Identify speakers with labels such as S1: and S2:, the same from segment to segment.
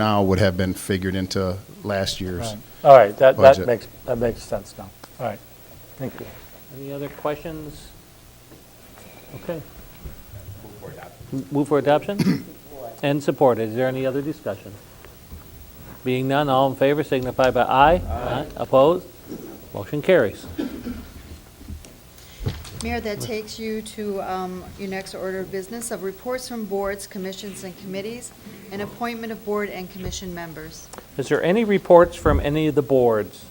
S1: now would have been figured into last year's.
S2: All right, that, that
S1: Budget.
S2: makes, that makes sense now. All right, thank you.
S3: Any other questions? Okay. Move for adoption? And support. Is there any other discussion? Being none, all in favor signify by aye. Aye. Opposed? Motion carries.
S4: Mayor, that takes you to um, your next order of business of reports from boards, commissions, and committees, and appointment of board and commission members.
S3: Is there any reports from any of the boards?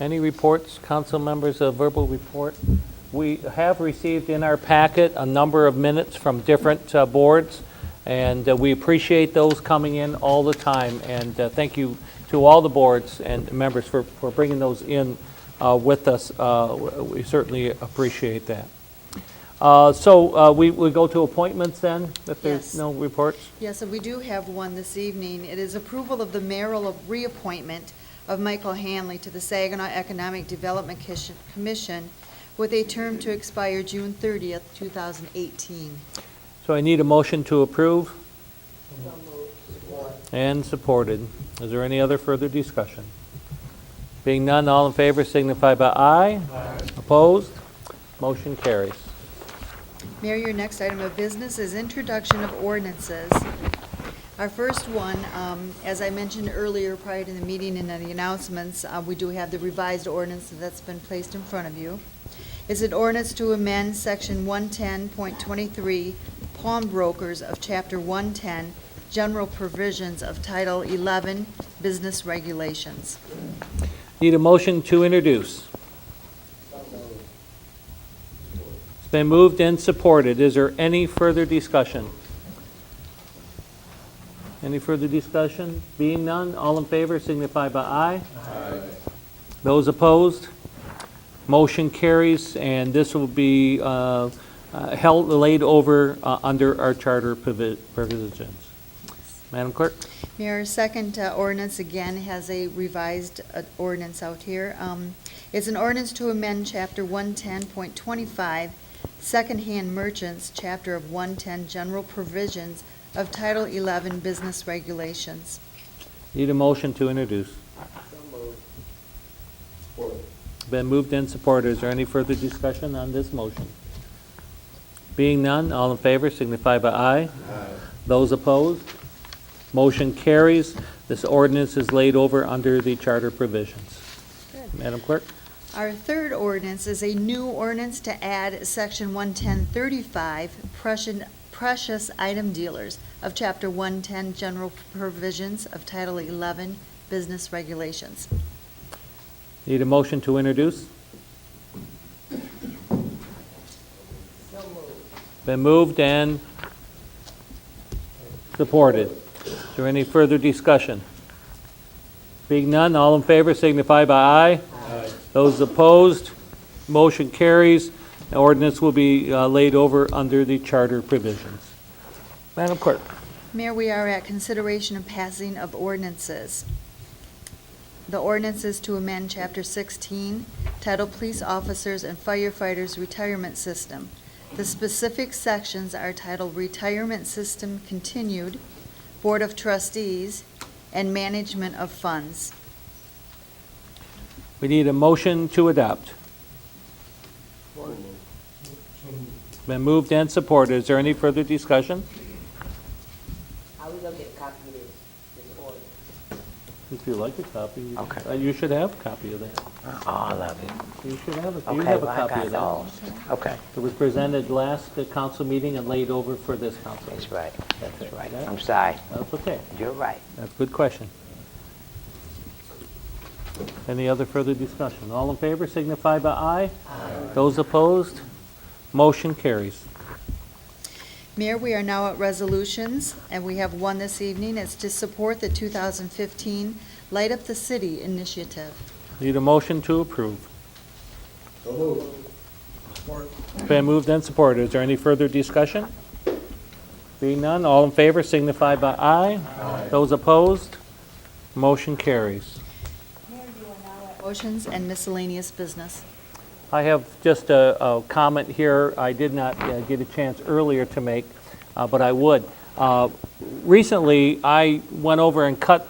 S3: Any reports, council members, a verbal report? We have received in our packet a number of minutes from different uh, boards, and uh, we appreciate those coming in all the time. And uh, thank you to all the boards and members for, for bringing those in uh, with us. Uh, w- We certainly appreciate that. Uh, So uh, we, we go to appointments then, if
S4: Yes.
S3: there's no reports?
S4: Yes, and we do have one this evening. It is approval of the mayoral of- reappointment of Michael Hanley to the Saginaw Economic Development Kish- Commission with a term to expire June 30th, 2018.
S3: So I need a motion to approve? And supported. Is there any other further discussion? Being none, all in favor signify by aye. Opposed? Motion carries.
S4: Mayor, your next item of business is introduction of ordinances. Our first one, um, as I mentioned earlier prior to the meeting and in the announcements, uh, we do have the revised ordinance that's been placed in front of you. It's an ordinance to amend Section 110.23 Pawnbrokers of Chapter 110, General Provisions of Title 11, Business Regulations.
S3: Need a motion to introduce. It's been moved and supported. Is there any further discussion? Any further discussion? Being none, all in favor signify by aye. Aye. Those opposed? Motion carries, and this will be uh, uh, held, laid over uh, under our charter provi- provisions. Madam Clerk?
S4: Mayor, second uh, ordinance again has a revised uh, ordinance out here. Um, It's an ordinance to amend Chapter 110.25, Secondhand Merchants, Chapter of 110, General Provisions of Title 11 Business Regulations.
S3: Need a motion to introduce. Been moved and supported. Is there any further discussion on this motion? Being none, all in favor signify by aye. Those opposed? Motion carries. This ordinance is laid over under the charter provisions.
S4: Good.
S3: Madam Clerk?
S4: Our third ordinance is a new ordinance to add Section 110.35, Precious- Precious Item Dealers of Chapter 110, General Provisions of Title 11 Business Regulations.
S3: Need a motion to introduce? Been moved and supported. Is there any further discussion? Being none, all in favor signify by aye. Those opposed, motion carries. The ordinance will be uh, laid over under the charter provisions. Madam Clerk.
S4: Mayor, we are at consideration and passing of ordinances. The ordinance is to amend Chapter 16, titled Police Officers and Firefighters Retirement System. The specific sections are titled Retirement System Continued, Board of Trustees, and Management of Funds.
S3: We need a motion to adopt. Been moved and supported. Is there any further discussion?
S5: Are we gonna get a copy of this, this order?
S3: If you like a copy, you-
S5: Okay.
S3: uh, you should have a copy of that.
S5: Oh, I love it.
S3: You should have a, you
S5: Okay,
S3: have
S5: well,
S3: a
S5: I
S3: copy
S5: got
S3: of that.
S5: those. Okay,
S3: It was presented last uh, council meeting and laid over for this council.
S5: that's right, that's right.
S3: Okay.
S5: I'm sorry,
S3: That's okay.
S5: you're right.
S3: That's a good question. Any other further discussion? All in favor signify by aye. Aye. Those opposed? Motion carries.
S4: Mayor, we are now at resolutions, and we have one this evening. It's to support the 2015 Light Up the City initiative.
S3: Need a motion to approve. Been moved and supported. Is there any further discussion? Being none, all in favor signify by aye. Those opposed, motion carries.
S4: Motions and miscellaneous business.
S3: I have just a, a comment here I did not uh, get a chance earlier to make, uh, but I would. Uh, Recently, I went over and cut